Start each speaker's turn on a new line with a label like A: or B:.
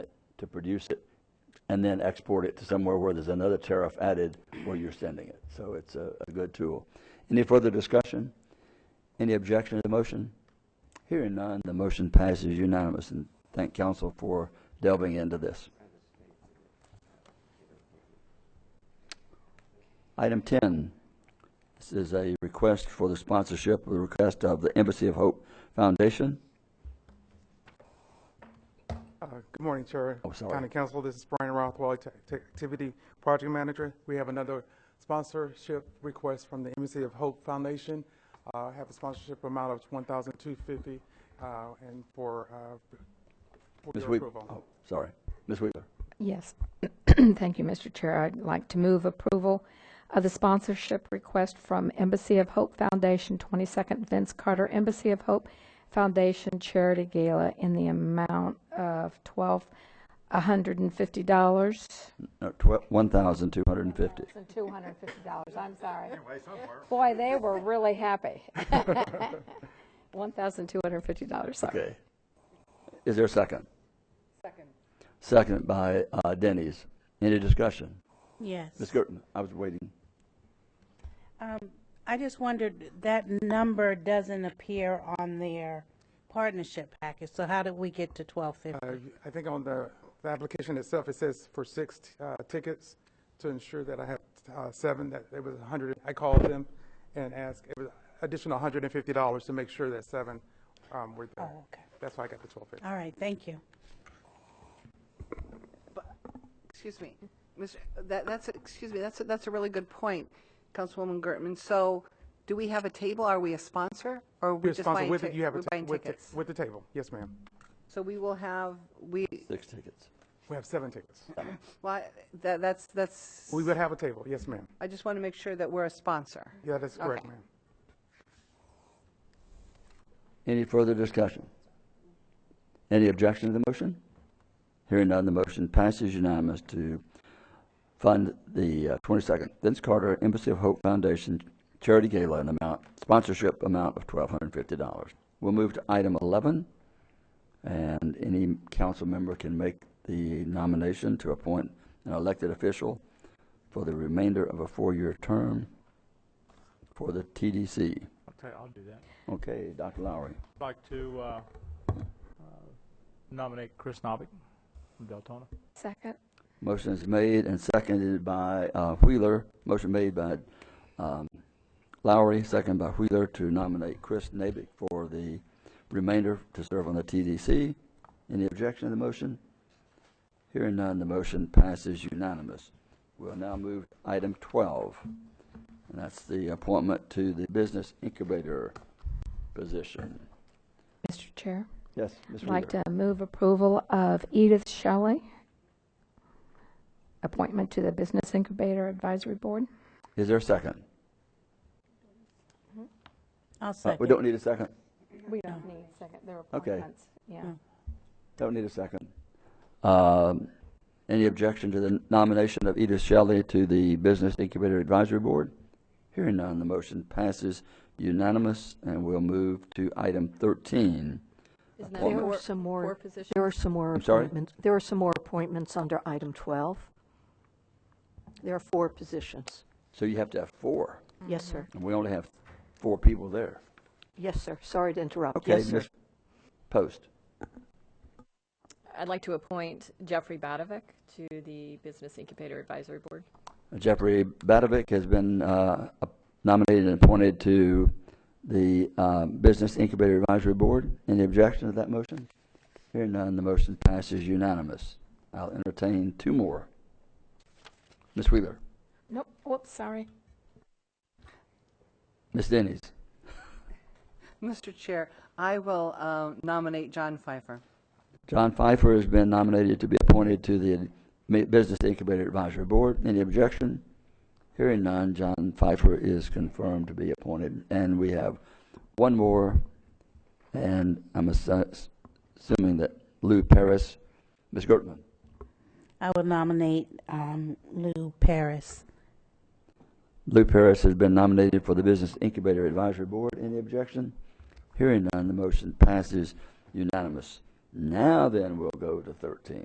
A: to produce it and then export it to somewhere where there's another tariff added where you're sending it. So it's a, a good tool. Any further discussion? Any objection to the motion? Hearing none, the motion passes unanimous, and thank council for delving into this. Item 10, this is a request for the sponsorship, the request of the Embassy of Hope Foundation.
B: Uh, Good morning, Chair.
A: Oh, sorry.
B: County Council, this is Brian Rothwell, Act- Activity Project Manager. We have another sponsorship request from the Embassy of Hope Foundation. Uh, I have a sponsorship amount of $1,250 uh, and for uh, for
A: Ms.
B: your
A: Weaver,
B: approval.
A: oh, sorry, Ms. Weaver.
C: Yes. Thank you, Mr. Chair. I'd like to move approval of the sponsorship request from Embassy of Hope Foundation, 22nd Vince Carter Embassy of Hope Foundation Charity Gala in the amount of $1,250.
A: No, twelve, one thousand two hundred and fifty.
C: $1,250, I'm sorry. Boy, they were really happy. $1,250, sorry.
A: Okay. Is there a second? Second. Second by uh, Denny's. Any discussion?
D: Yes.
A: Ms. Gerton, I was waiting.
D: I just wondered, that number doesn't appear on their partnership package, so how did we get to twelve
B: Uh,
D: fifty?
B: I think on the the application itself, it says for six uh, tickets to ensure that I have uh, seven, that it was 100. I called them and asked, it was additional $150 to make sure that seven um, were there.
D: Oh, okay.
B: That's why I got the 1250.
D: All right, thank you.
E: Excuse me, Mr., that, that's, excuse me, that's, a- that's a really good point, Councilwoman Gertman. So do we have a table? Are we a sponsor? Or are we
B: You're
E: just
B: sponsored
E: buying
B: with
E: tic-
B: it, you have a
E: we're
B: ta-
E: buying
B: with the-
E: tickets?
B: with the table. Yes, ma'am.
E: So we will have, we,
A: Six tickets.
B: We have seven tickets.
E: why, that, that's, that's,
B: We would have a table, yes, ma'am.
E: I just want to make sure that we're a sponsor.
B: Yeah, that's correct,
E: Okay.
B: ma'am.
A: Any further discussion? Any objection to the motion? Hearing none, the motion passes unanimous to fund the uh, 22nd Vince Carter Embassy of Hope Foundation Charity Gala in amount, sponsorship amount of $1,250. We'll move to item 11, and any council member can make the nomination to appoint an elected official for the remainder of a four-year term for the TDC.
F: I'll tell you, I'll do that.
A: Okay, Dr. Lowry.
F: I'd like to uh, uh, nominate Chris Novick from Deltona.
C: Second?
A: Motion is made and seconded by uh, Wheeler. Motion made by um, Lowry, seconded by Wheeler to nominate Chris Nabick for the remainder to serve on the TDC. Any objection to the motion? Hearing none, the motion passes unanimous. We'll now move to item 12, and that's the appointment to the Business Incubator position.
C: Mr. Chair?
A: Yes, Ms.
C: I'd like
A: Wheeler.
C: to move approval of Edith Shelley, appointment to the Business Incubator Advisory Board.
A: Is there a second? Uh,
D: I'll
A: Uh,
D: second.
A: We don't need a second?
C: We don't need second, there are
A: Okay.
C: appointments. Yeah.
D: Mm.
A: Don't need a second. Um, Any objection to the nomination of Edith Shelley to the Business Incubator Advisory Board? Hearing none, the motion passes unanimous, and we'll move to item 13.
G: Isn't that
A: Well,
G: there
A: there
G: were
A: were
G: some
E: four
G: more,
E: positions?
G: there were some more
A: I'm sorry?
G: appointments. There were some more appointments under item 12. There are four positions.
A: So you have to have four,
G: Yes, sir.
A: and we only have four people there.
G: Yes, sir. Sorry to interrupt.
A: Okay,
G: Yes, sir.
A: Ms. Post.
H: I'd like to appoint Jeffrey Badovic to the Business Incubator Advisory Board.
A: Jeffrey Badovic has been uh, nominated and appointed to the uh, Business Incubator Advisory Board. Any objection to that motion? Hearing none, the motion passes unanimous. I'll entertain two more. Ms. Wheeler,
C: Nope, whoops, sorry.
A: Ms. Denny's,
E: Mr. Chair, I will uh, nominate John Pfeiffer.
A: John Pfeiffer has been nominated to be appointed to the Mi- Business Incubator Advisory Board. Any objection? Hearing none, John Pfeiffer is confirmed to be appointed. And we have one more, and I'm assu- assuming that Lou Paris, Ms. Gertman.
D: I would nominate um, Lou Paris.
A: Lou Paris has been nominated for the Business Incubator Advisory Board. Any objection? Hearing none, the motion passes unanimous. Now then, we'll go to 13.